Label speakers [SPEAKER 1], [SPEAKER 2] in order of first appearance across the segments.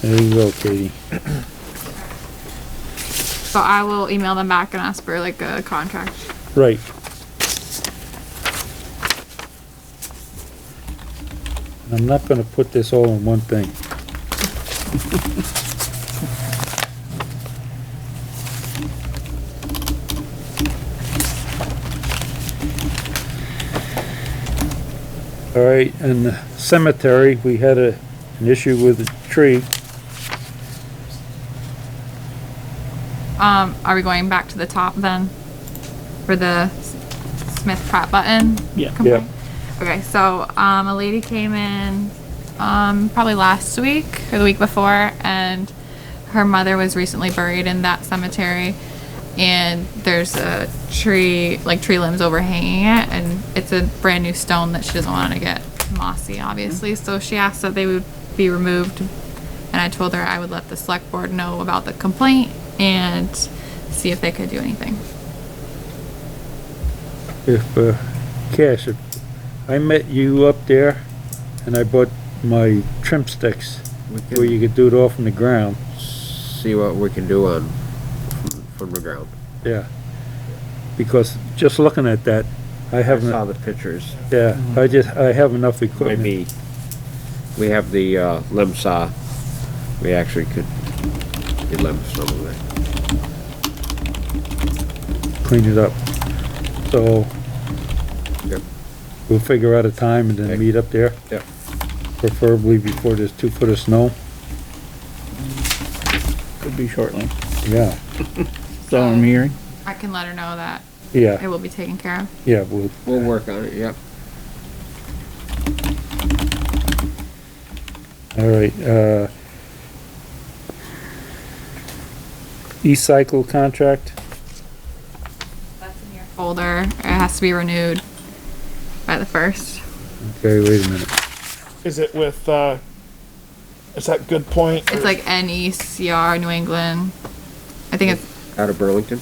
[SPEAKER 1] There you go, Katie.
[SPEAKER 2] So I will email them back and ask for like a contract.
[SPEAKER 1] Right. I'm not gonna put this all in one thing. All right, in the cemetery, we had a, an issue with a tree.
[SPEAKER 2] Um, are we going back to the top then? For the S- Smith Pratt button?
[SPEAKER 3] Yeah.
[SPEAKER 2] complaint? Okay, so, um, a lady came in, um, probably last week or the week before, and her mother was recently buried in that cemetery. And there's a tree, like tree limbs overhanging it, and it's a brand new stone that she doesn't want to get mossy, obviously. So she asked that they would be removed and I told her I would let the select board know about the complaint and see if they could do anything.
[SPEAKER 1] if, uh, Cash, if I met you up there and I bought my trim sticks
[SPEAKER 4] We
[SPEAKER 1] where you
[SPEAKER 4] can
[SPEAKER 1] could do it all from the ground,
[SPEAKER 4] see what we can do on, from- from the ground.
[SPEAKER 1] yeah. Because just looking at that, I
[SPEAKER 4] I saw
[SPEAKER 1] haven't,
[SPEAKER 4] the pictures.
[SPEAKER 1] yeah, I
[SPEAKER 3] Mm-hmm.
[SPEAKER 1] just, I have enough equipment.
[SPEAKER 4] Maybe, we have the, uh, limb saw. We actually could, could limb some of it.
[SPEAKER 1] Clean it up. So
[SPEAKER 4] Yep.
[SPEAKER 1] we'll figure out a time and
[SPEAKER 4] Okay.
[SPEAKER 1] then meet up there.
[SPEAKER 4] Yep.
[SPEAKER 1] Preferably before there's two foot of snow,
[SPEAKER 3] Could be shortly.
[SPEAKER 1] yeah,
[SPEAKER 3] So I'm hearing.
[SPEAKER 2] I can let her know that it
[SPEAKER 1] yeah,
[SPEAKER 2] will be taken care of.
[SPEAKER 1] yeah, we'll,
[SPEAKER 4] We'll work on it, yep.
[SPEAKER 1] All right, uh. E-cycle contract,
[SPEAKER 2] That's in your folder. It has to be renewed by the first.
[SPEAKER 1] okay, wait a minute,
[SPEAKER 5] Is it with, uh, is that Good Point?
[SPEAKER 2] It's like NECR New England. I think it's
[SPEAKER 4] Out of Burlington?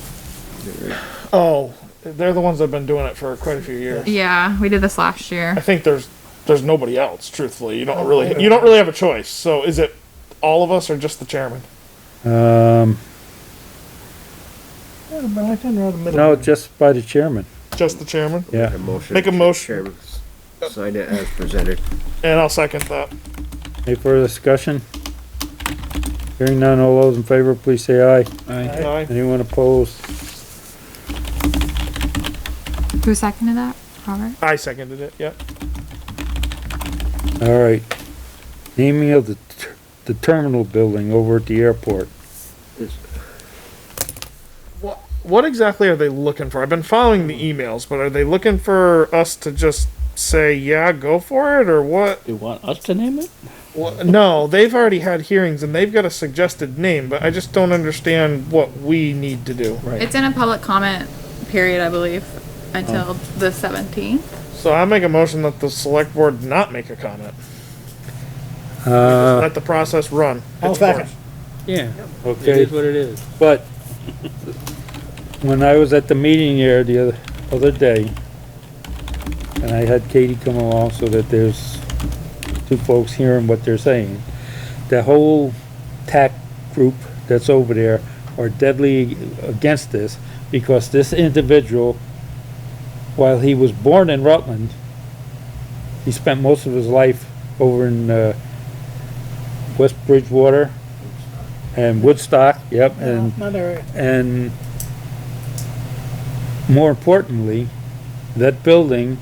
[SPEAKER 5] Oh, they're the ones that have been doing it for quite a few years.
[SPEAKER 2] yeah. We did this last
[SPEAKER 5] I
[SPEAKER 2] year.
[SPEAKER 5] think there's there's nobody else. Truthfully, you don't really you don't really have a choice. So is it all of us or just the chairman?
[SPEAKER 1] um, no, just by the chairman,
[SPEAKER 5] Just the chairman.
[SPEAKER 1] yeah,
[SPEAKER 4] A motion.
[SPEAKER 5] Make a motion.
[SPEAKER 4] Chairman, s- Sign it as presented.
[SPEAKER 5] And I'll second that.
[SPEAKER 1] any further discussion? Hearing none, all those in favor, please say aye. Aye.
[SPEAKER 5] Aye.
[SPEAKER 1] Anyone opposed?
[SPEAKER 2] Who seconded that? Robert?
[SPEAKER 5] I seconded it. Yep.
[SPEAKER 1] All right, naming of the, ter- the terminal building over at the airport,
[SPEAKER 4] It's-
[SPEAKER 5] What what exactly are they looking for? I've been following the emails, but are they looking for us to just say yeah, go for it, or what?
[SPEAKER 3] Do you want us to name it?
[SPEAKER 5] Well, no, they've already had hearings and they've got a suggested name, but I just don't understand what we need to do. Right.
[SPEAKER 2] It's in a public comment period, I believe, until the 17th.
[SPEAKER 5] So I make a motion that the select board not make a comment.
[SPEAKER 1] uh,
[SPEAKER 5] Let the process run.
[SPEAKER 6] I'll
[SPEAKER 5] Its
[SPEAKER 6] second.
[SPEAKER 5] course.
[SPEAKER 3] Yeah.
[SPEAKER 1] okay,
[SPEAKER 3] what it is.
[SPEAKER 1] but when I was at the meeting here the other, other day, and I had Katie come along so that there's two folks hearing what they're saying, the whole tack group that's over there are deadly against this because this individual, while he was born in Rutland, he spent most of his life over in, uh, West Bridgewater and Woodstock, yep, and
[SPEAKER 6] Mother,
[SPEAKER 1] and more importantly, that building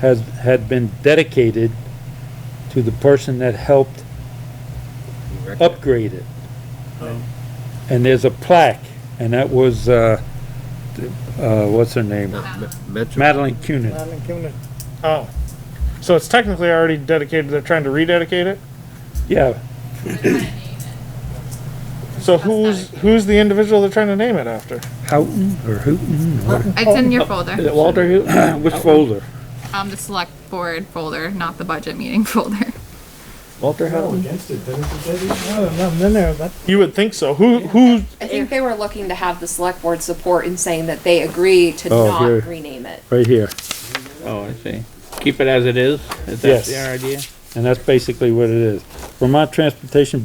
[SPEAKER 1] has, had been dedicated to the person that helped upgrade it. Oh. And there's a plaque, and that was, uh, th- uh, what's her name?
[SPEAKER 4] Not me- mentioned.
[SPEAKER 1] Madeline Cunin.
[SPEAKER 6] I'm in Cuna.
[SPEAKER 5] Oh. So it's technically already dedicated, they're trying to rededicate it?
[SPEAKER 1] Yeah,
[SPEAKER 5] So who's, who's the individual they're trying to name it after?
[SPEAKER 1] Houghton or Hooton or,
[SPEAKER 2] It's in your folder.
[SPEAKER 1] Walter Houghton, which folder?
[SPEAKER 2] Um, the select board folder, not the budget meeting folder.
[SPEAKER 3] Walter Howell.
[SPEAKER 6] Against it, didn't it? No, nothing in there, but
[SPEAKER 5] You would think so. Who, who,
[SPEAKER 7] I think they were looking to have the select board support in saying that they agree to
[SPEAKER 1] Oh, here.
[SPEAKER 7] not rename it.
[SPEAKER 1] Right here.
[SPEAKER 3] Oh, I see. Keep it as it is? Is that
[SPEAKER 1] Yes.
[SPEAKER 3] your idea?
[SPEAKER 1] And that's basically what it is. Vermont Transportation